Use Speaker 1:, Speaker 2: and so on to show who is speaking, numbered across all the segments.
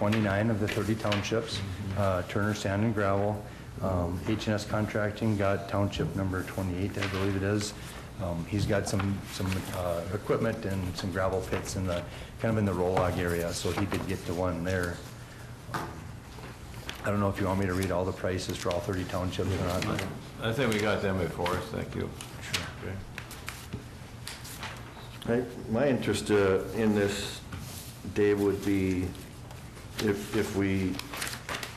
Speaker 1: 29 of the 30 townships, uh, Turner Sand and Gravel. Um, h and S Contracting got township number 28, I believe it is. Um, He's got some, some uh, equipment and some gravel pits in the, kind of in the Rolog area, so he did get to one there. I don't know if you want me to read all the prices for all 30 townships or not. but-
Speaker 2: I think we got them before us, thank you. Sure.
Speaker 3: I- My interest uh, in this, Dave, would be if, if we,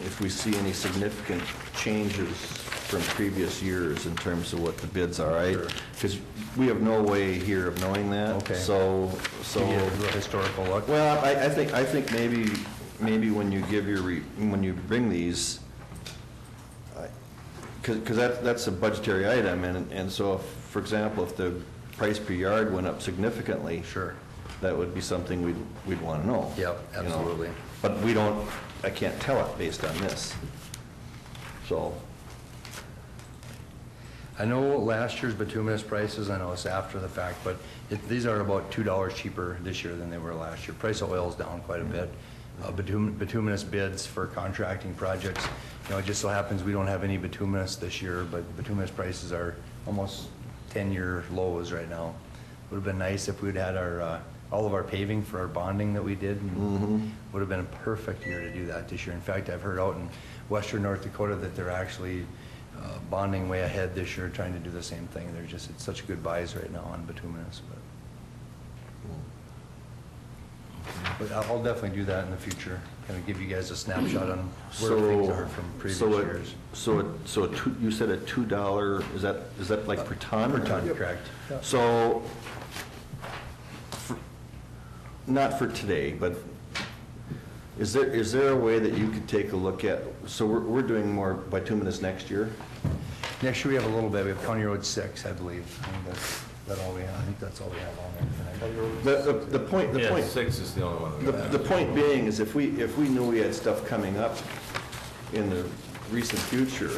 Speaker 3: if we see any significant changes from previous years in terms of what the bids are, right? Because we have no way here of knowing that.
Speaker 1: Okay.
Speaker 3: So, so.
Speaker 1: To get a real historical look.
Speaker 3: Well, I, I think, I think maybe, maybe when you give your, re- when you bring these, because that, that's a budgetary item, and, and so, if, for example, if the price per yard went up significantly.
Speaker 1: Sure.
Speaker 3: That would be something we'd, we'd want to know.
Speaker 1: Yep,
Speaker 3: you know.
Speaker 1: absolutely.
Speaker 3: But we don't, I can't tell it based on this. So,
Speaker 1: I know last year's bituminous prices, I know it's after the fact, but it- these are about $2 cheaper this year than they were last year. Price of oil is down quite a bit. Uh, bitum- Bituminous bids for contracting projects, you know, it just so happens we don't have any bituminous this year, but bituminous prices are almost 10-year lows right now. Would have been nice if we'd had our, uh, all of our paving for our bonding that we did.
Speaker 3: Mm-hmm.
Speaker 1: Would have been a perfect year to do that this year. In fact, I've heard out in western North Dakota that they're actually uh, bonding way ahead this year, trying to do the same thing. They're just, it's such good buys right now on bituminous, but.
Speaker 3: Mm-hmm.
Speaker 1: But I'll I'll definitely do that in the future, kind of give you guys a snapshot on where things
Speaker 3: so.
Speaker 1: are from previous
Speaker 3: so it-
Speaker 1: years.
Speaker 3: So, it- so a two, you said a two dollar, is that, is that like per ton?
Speaker 1: Per ton, correct.
Speaker 3: So, for- not for today, but is there, is there a way that you could take a look at, so we're, we're doing more bituminous next year?
Speaker 1: Next year, we have a little bit, we have County Road 6, I believe. I think that's, that all we have, I think that's all we have on there. for next year.
Speaker 3: The, the- the point, the
Speaker 2: Yeah,
Speaker 3: point,
Speaker 2: six is the only one we
Speaker 3: the
Speaker 2: got.
Speaker 3: the point being is if we, if we knew we had stuff coming up in the recent future,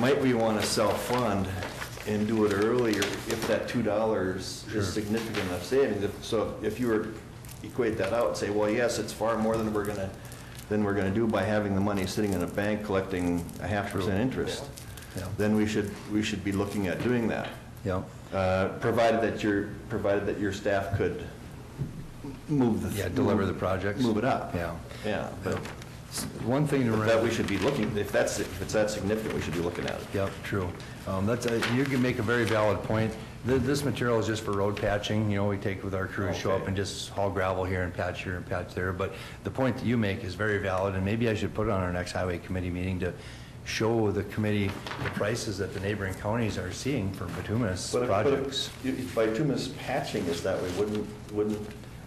Speaker 3: might we want to self-fund and do it earlier if that two dollars is significant enough savings? If- So if you were equate that out and say, well, yes, it's far more than we're gonna, than we're gonna do by having the money sitting in a bank collecting a half percent interest,
Speaker 1: Yeah.
Speaker 3: then we should, we should be looking at doing that.
Speaker 1: Yeah,
Speaker 3: Uh, Provided that your, provided that your staff could move the.
Speaker 1: yeah, deliver the projects.
Speaker 3: Move it up.
Speaker 1: Yeah.
Speaker 3: Yeah, but
Speaker 1: One thing to remember.
Speaker 3: that we should be looking, if that's, if it's that significant, we should be looking at it.
Speaker 1: Yep, true. Um, That's, a- you can make a very valid point. Th- This material is just for road patching, you know, we take with our crews, show up
Speaker 3: Okay.
Speaker 1: and just haul gravel here and patch here and patch there. But the point that you make is very valid, and maybe I should put it on our next highway committee meeting to show the committee the prices that the neighboring counties are seeing for bituminous
Speaker 3: But if- but if-
Speaker 1: projects.
Speaker 3: If bituminous patching is that way, wouldn't, wouldn't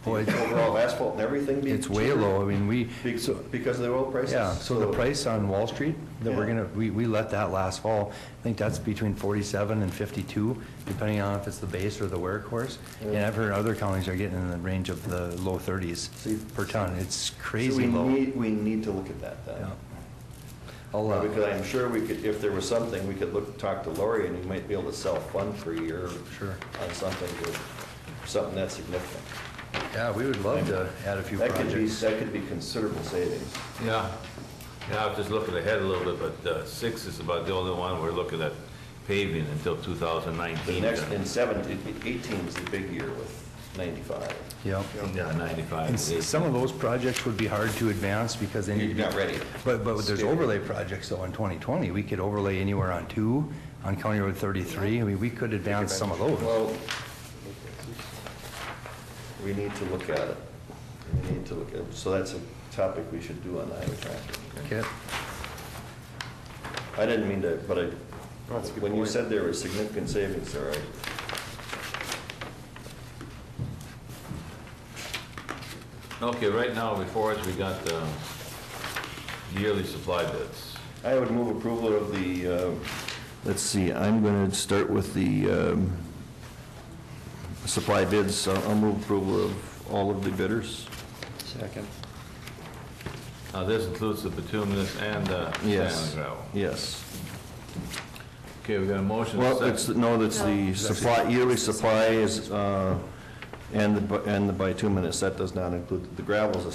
Speaker 3: the
Speaker 1: Well, it-
Speaker 3: overall asphalt and everything be?
Speaker 1: It's way
Speaker 3: cheaper?
Speaker 1: low, I mean, we,
Speaker 3: Be- Because of the oil prices?
Speaker 1: Yeah, so the price on Wall Street that we're
Speaker 3: Yeah.
Speaker 1: gonna, we, we let that last fall, I think that's between forty-seven and fifty-two, depending on if it's the base or the wear course. And I've heard other counties are getting in the range of the low thirties
Speaker 3: See-
Speaker 1: per ton, it's
Speaker 3: So
Speaker 1: crazy
Speaker 3: we
Speaker 1: low.
Speaker 3: need, we need to look at that then.
Speaker 1: Yeah. I'll, uh,
Speaker 3: Because I'm sure we could, if there was something, we could look, talk to Lori and we might be able to self-fund for a year.
Speaker 1: Sure.
Speaker 3: On something, to- something that's significant.
Speaker 1: yeah, we would love to add a few
Speaker 3: That could be,
Speaker 1: projects.
Speaker 3: that could be considerable savings.
Speaker 2: Yeah, yeah, I was just looking ahead a little bit, but uh, six is about the only one we're looking at paving until
Speaker 3: The
Speaker 2: 2019.
Speaker 3: next,
Speaker 2: then.
Speaker 3: in seventeen, eighteen is the big year with ninety-five.
Speaker 1: Yep.
Speaker 2: Yeah, 95.
Speaker 1: And s- some of those projects would be hard to advance because they need to
Speaker 3: You're
Speaker 1: be-
Speaker 3: not ready.
Speaker 1: But, but there's
Speaker 3: Stay.
Speaker 1: overlay projects though in 2020, we could overlay anywhere on two, on County Road 33, I mean, we could advance some of those.
Speaker 3: Well, we need to look at it. We need to look at, it. so that's a topic we should do on the highway traffic.
Speaker 1: Okay.
Speaker 3: I didn't mean to, but I, when you said there were significant savings there, I,
Speaker 2: Okay, right now before us, we got the yearly supply bids.
Speaker 3: I would move approval of the, um, let's see, I'm going to start with the um, supply bids. I'll I'll move approval of all of the bidders.
Speaker 4: Second.
Speaker 2: Now, this includes the bituminous and the sand and
Speaker 3: Yes,
Speaker 2: gravel.
Speaker 3: yes.
Speaker 2: Okay, we got a motion. and a
Speaker 3: Well, it's,
Speaker 2: second.
Speaker 3: no, that's the supply, yearly supply is, uh, and the bu- and the bituminous. That does not include, the gravel's a